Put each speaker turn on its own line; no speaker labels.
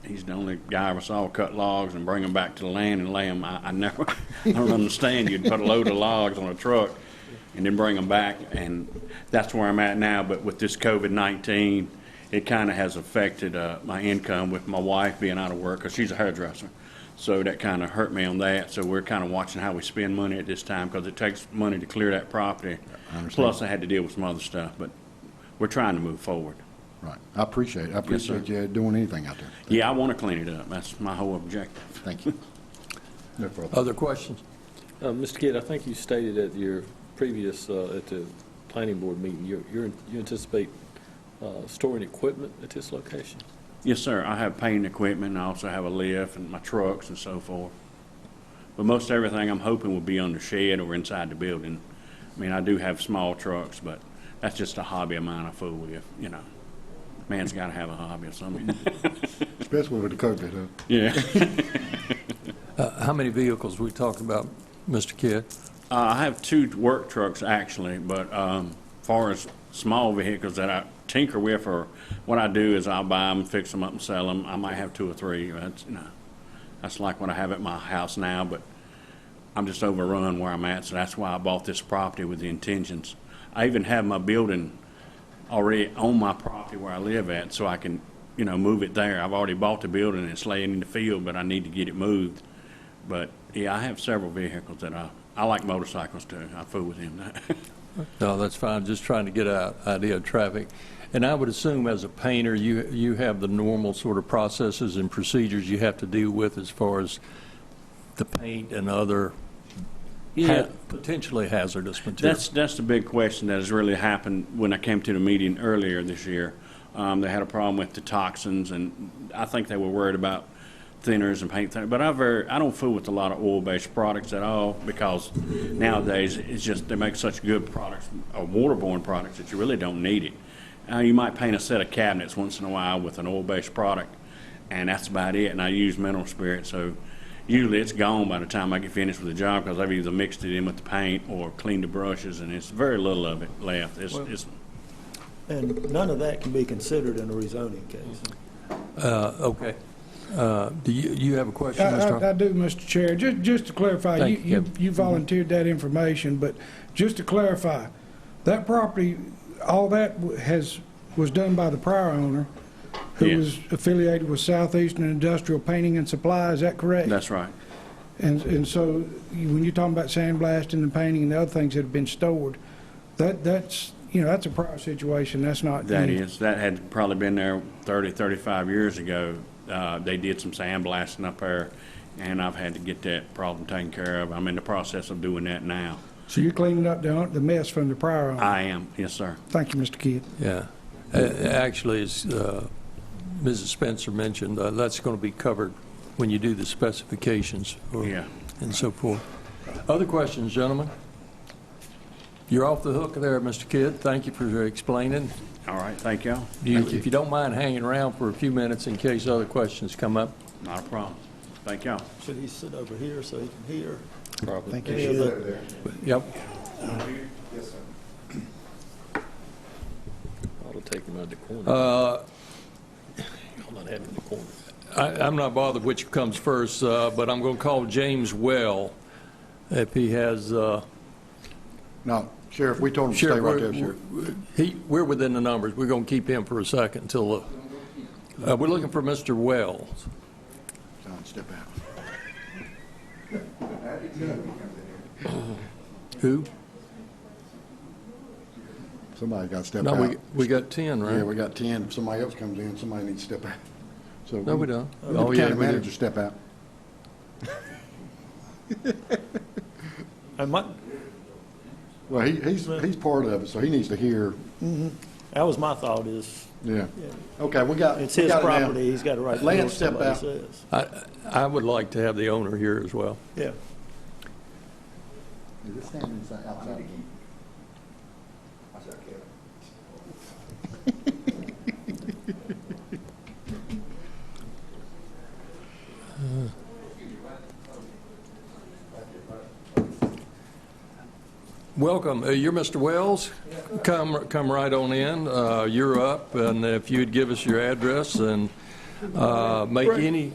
He's the only guy I ever saw cut logs and bring them back to the land and lay them. I, I never, I don't understand. You'd put a load of logs on a truck and then bring them back, and that's where I'm at now. But with this COVID-19, it kind of has affected uh, my income with my wife being out of work because she's a hairdresser. So that kind of hurt me on that. So we're kind of watching how we spend money at this time because it takes money to clear that property. Plus, I had to deal with some other stuff, but we're trying to move forward.
Right. I appreciate it. I
sir.
appreciate you doing anything out there.
Yeah, I want to clean it up. That's my whole objective.
Thank you. No further.
Other questions?
Uh, Mr. Kidd, I think you stated at your previous, uh, at the planning board meeting, you're- you're- you anticipate uh, storing equipment at this location?
Yes, sir. I have painting equipment. I also have a lift and my trucks and so forth. But most everything I'm hoping will be on the shed or inside the building. I mean, I do have small trucks, but that's just a hobby of mine I fool with, you know. Man's got to have a hobby or something.
Uh, Especially with the COVID, huh?
Yeah.
Uh, How many vehicles we talking about, Mr. Kidd?
Uh, I have two work trucks actually, but um, far as small vehicles that I tinker with, or what I do is I'll buy them, fix them up, and sell them. I might have two or three. That's you know, that's like what I have at my house now. But I'm just overrun where I'm at, so that's why I bought this property with the intentions. I even have my building already on my property where I live at, so I can you know move it there. I've already bought the building; it's laying in the field, but I need to get it moved. But, yeah, I have several vehicles that I, I like motorcycles too. I fool with them.
No, that's fine, just trying to get an idea of traffic. And I would assume as a painter, you, you have the normal sort of processes and procedures you have to deal with as far as the paint and other ha- potentially hazardous materials.
That's, that's the big question that has really happened when I came to the meeting earlier this year. Um, they had a problem with the toxins and I think they were worried about thinners and paint thinners. But I very, I don't fool with a lot of oil-based products at all because nowadays it's just, they make such good products, or waterborne products that you really don't need it. Uh, you might paint a set of cabinets once in a while with an oil-based product and that's about it. And I use mineral spirit, so usually it's gone by the time I get finished with the job because I've either mixed it in with the paint or cleaned the brushes, and it's very little of it left. It's, it's
And none of that can be considered in a rezoning case.
Uh, Okay. Uh, Do you, you have a question,
I-
Mr.
I I
Hall?
do, Mr. Chair. Ju- Just to clarify, you-
Thank you,
you
Kevin.
you volunteered that information, but just to clarify, that property, all that w- has, was done by the prior owner,
Yeah.
who was affiliated with Southeastern Industrial Painting and Supply, is that correct?
that's right.
And and so, you- when you're talking about sandblasting and painting and the other things that have been stored, that that's, you know, that's a prior situation, that's not...
That
any-
is that had probably been there 30, 35 years ago. Uh, they did some sandblasting up there, and I've had to get that problem taken care of. I'm in the process of doing that now.
So you're cleaning up the the mess from the prior owner?
I am, yes, sir.
Thank you, Mr. Kidd.
Yeah. Uh, Actually, as uh, Mrs. Spencer mentioned, uh, that's going to be covered when you do the specifications or-
Yeah.
and so forth. Other questions, gentlemen? You're off the hook there, Mr. Kidd. Thank you for explaining.
All right, thank y'all.
You- If you don't mind hanging around for a few minutes in case other questions come up.
Not a problem. Thank y'all.
Should he sit over here so he can hear?
Thank
Any of the-
Yep.
Ought to take them out of the corner.
Uh,
I'll not have it in the corner.
I- I'm not bothered which comes first, uh, but I'm going to call James Well if he has, uh,
No, Sheriff, we told him to stay
Sheriff,
right there,
we're-
Sheriff.
we're- he- we're within the numbers. We're going to keep him for a second until, uh, uh, we're looking for Mr. Wells.
John, step out.
Who?
Somebody got to step
No, we
out.
we got 10,
Uh, Yeah,
right?
we got 10. If somebody else comes in, somebody needs to step out. So
No, we don't.
Oh,
Oh, yeah,
County
we do.
manager, step out.
And my,
Well, he, he's, he's part of it, so he needs to hear,
that was my thought is,
yeah. Okay, we got,
it's
we
his
got it now.
property, he's got a right to do what
Lance, step
somebody
out.
says.
I I would like to have the owner here as well.
Yeah,
Is it standing inside, outside?
Welcome. Uh, You're Mr. Wells. Come, come right on in. Uh, You're up, and if you'd give us your address and uh, make any